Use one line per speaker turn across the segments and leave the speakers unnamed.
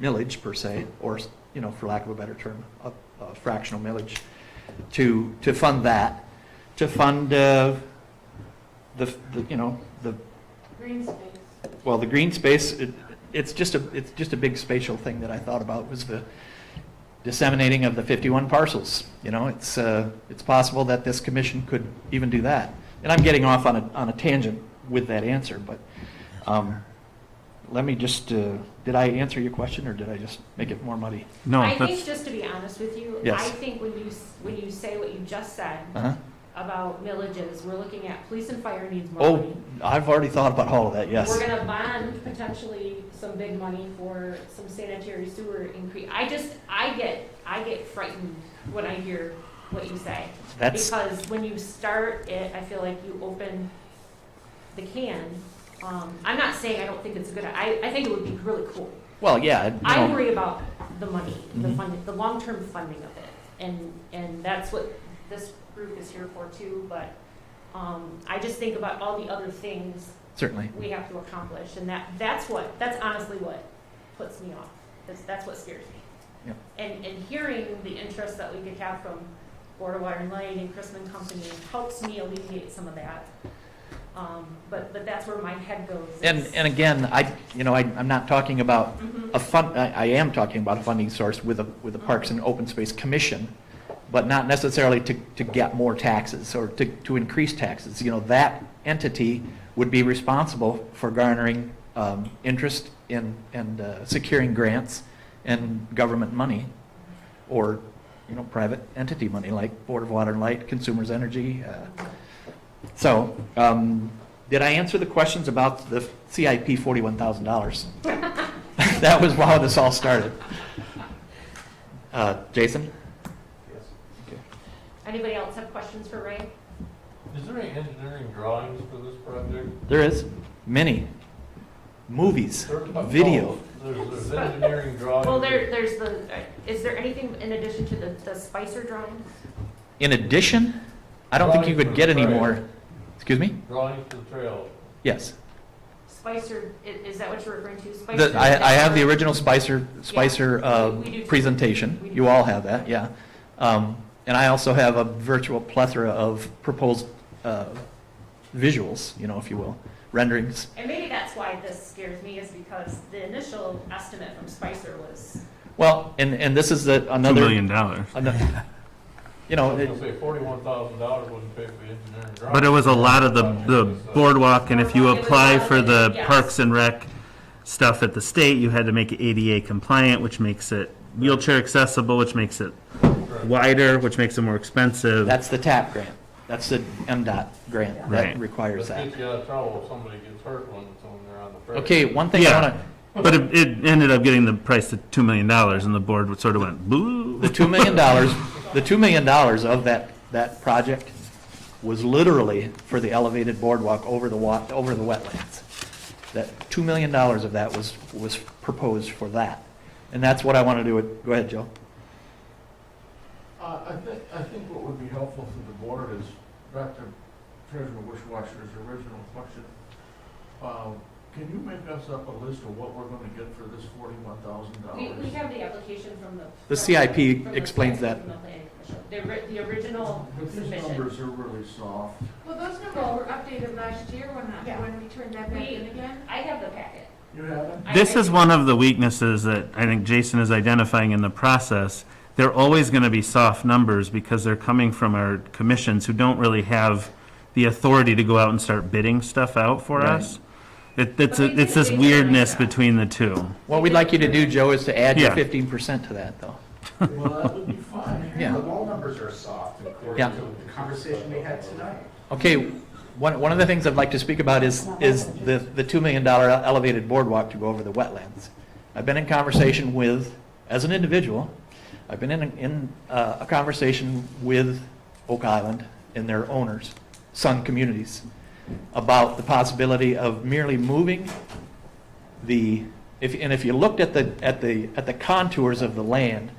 millage per se, or, you know, for lack of a better term, a a fractional millage, to, to fund that, to fund uh, the, the, you know, the,
Green space.
well, the green space, it- it's just a, it's just a big spatial thing that I thought about was the disseminating of the 51 parcels. You know, it's, uh, it's possible that this commission could even do that. And I'm getting off on a, on a tangent with that answer, but um, let me just, uh, did I answer your question or did I just make it more muddy?
No,
I think,
that's,
just to be honest with you,
Yes.
I think when you, s- when you say what you just said
Uh-huh.
about villages, we're looking at police and fire needs more
Oh,
money.
I've already thought about all of that, yes.
We're gonna bond potentially some big money for some sanitary sewer increase. I just, I get, I get frightened when I hear what you say.
That's,
Because when you start it, I feel like you open the can. Um, I'm not saying I don't think it's a good, I, I think it would be really cool.
well, yeah, you
I
know,
worry about the money, the
Mhm.
funding, the long-term funding of it, and, and that's what this group is here for too, but, um, I just think about all the other things
certainly.
we have to accomplish, and that, that's what, that's honestly what puts me off, that's, that's what scares me.
Yeah.
And, and hearing the interest that we could have from Board of Water and Light and Chrisman Company helps me alleviate some of that. Um, but, but that's where my head goes.
And, and again, I, you know, I, I'm not talking about
Mhm.
a fund, I I am talking about a funding source with a, with a Parks and Open Space Commission, but not necessarily to, to get more taxes or to, to increase taxes. You know, that entity would be responsible for garnering um, interest in, and uh, securing grants and government money, or, you know, private entity money like Board of Water and Light, Consumers Energy. uh, So, um, did I answer the questions about the CIP $41,000? That was how this all started. Uh, Jason?
Anybody else have questions for Ray?
Is there any engineering drawings for this project?
There is many movies,
There-
video.
Oh, There's, there's engineering drawings.
Well, there, there's the, is there anything in addition to the, the Spicer drawings?
In addition, I don't think you could get any more. Excuse me?
Drawings for the trail.
Yes.
Spicer, i- is that what you're referring to? Spicer?
The- I, I have the original Spicer, Spicer uh,
we do too. We
presentation.
do.
You all have that, yeah. Um, And I also have a virtual plethora of proposed uh, visuals, you know, if you will, renderings.
And maybe that's why this scares me, is because the initial estimate from Spicer was,
Well, and, and this is the,
two
another.
million dollars.
ano- You
I
know,
was
it-
gonna say forty-one thousand dollars wouldn't pay for the engineering drawings. uh,
But it was a lot of the, the boardwalk, and if you apply for the
Yes.
Parks and Rec stuff at the state, you had to make it ADA compliant, which makes it wheelchair accessible, which makes it wider, which makes it more expensive.
That's the TAP grant. That's the MDOT grant that
Right.
requires
Let's
that.
get you out of trouble if somebody gets hurt when it's on there on the trail.
Okay, one thing I
Yeah.
want to,
But it, it ended up getting the price to two million dollars, and the board sort of went, boo.
the $2 million, the $2 million of that, that project was literally for the elevated boardwalk over the wa, over the wetlands. That $2 million of that was, was proposed for that. And that's what I want to do with, go ahead, Joe.
Uh, I think, I think what would be helpful to the board is back to Treasurer Wishwasher's original question. Um, Can you make us up a list of what we're gonna get for this forty-one thousand
we, we
dollars?
have the application from the.
The CIP
from the
explains
CIP
that.
from the planning commission. The, ri- the original
But these
submission.
numbers are really soft.
Well, those numbers were updated last year when,
Yeah.
I- when we turned that back
We-
in again.
I have the packet.
You haven't?
I-
This
I-
is one of the weaknesses that I think Jason is identifying in the process. They're always going to be soft numbers because they're coming from our commissions who don't really have the authority to go out and start bidding stuff out for
Right.
us. It,
But
it's,
they
a- it's
did
this
a big survey
weirdness
job.
between the two.
What we'd like you to do, Joe, is to add your
Yeah.
15% to that, though.
Well, that would be fine.
Yeah.
The wall numbers are soft, according
Yeah.
to the conversation we had tonight.
Okay, one, one of the things I'd like to speak about is, is the, the $2 million elevated boardwalk to go over the wetlands. I've been in conversation with, as an individual, I've been in, in uh, a conversation with Oak Island and their owners, Sun Communities, about the possibility of merely moving the, if, and if you looked at the, at the, at the contours of the land,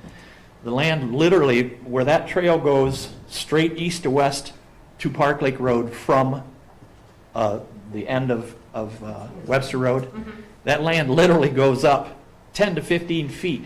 the land literally, where that trail goes straight east to west to Park Lake Road from uh, the end of, of uh, Webster Road,
Mhm.
that land literally goes up 10 to 15 feet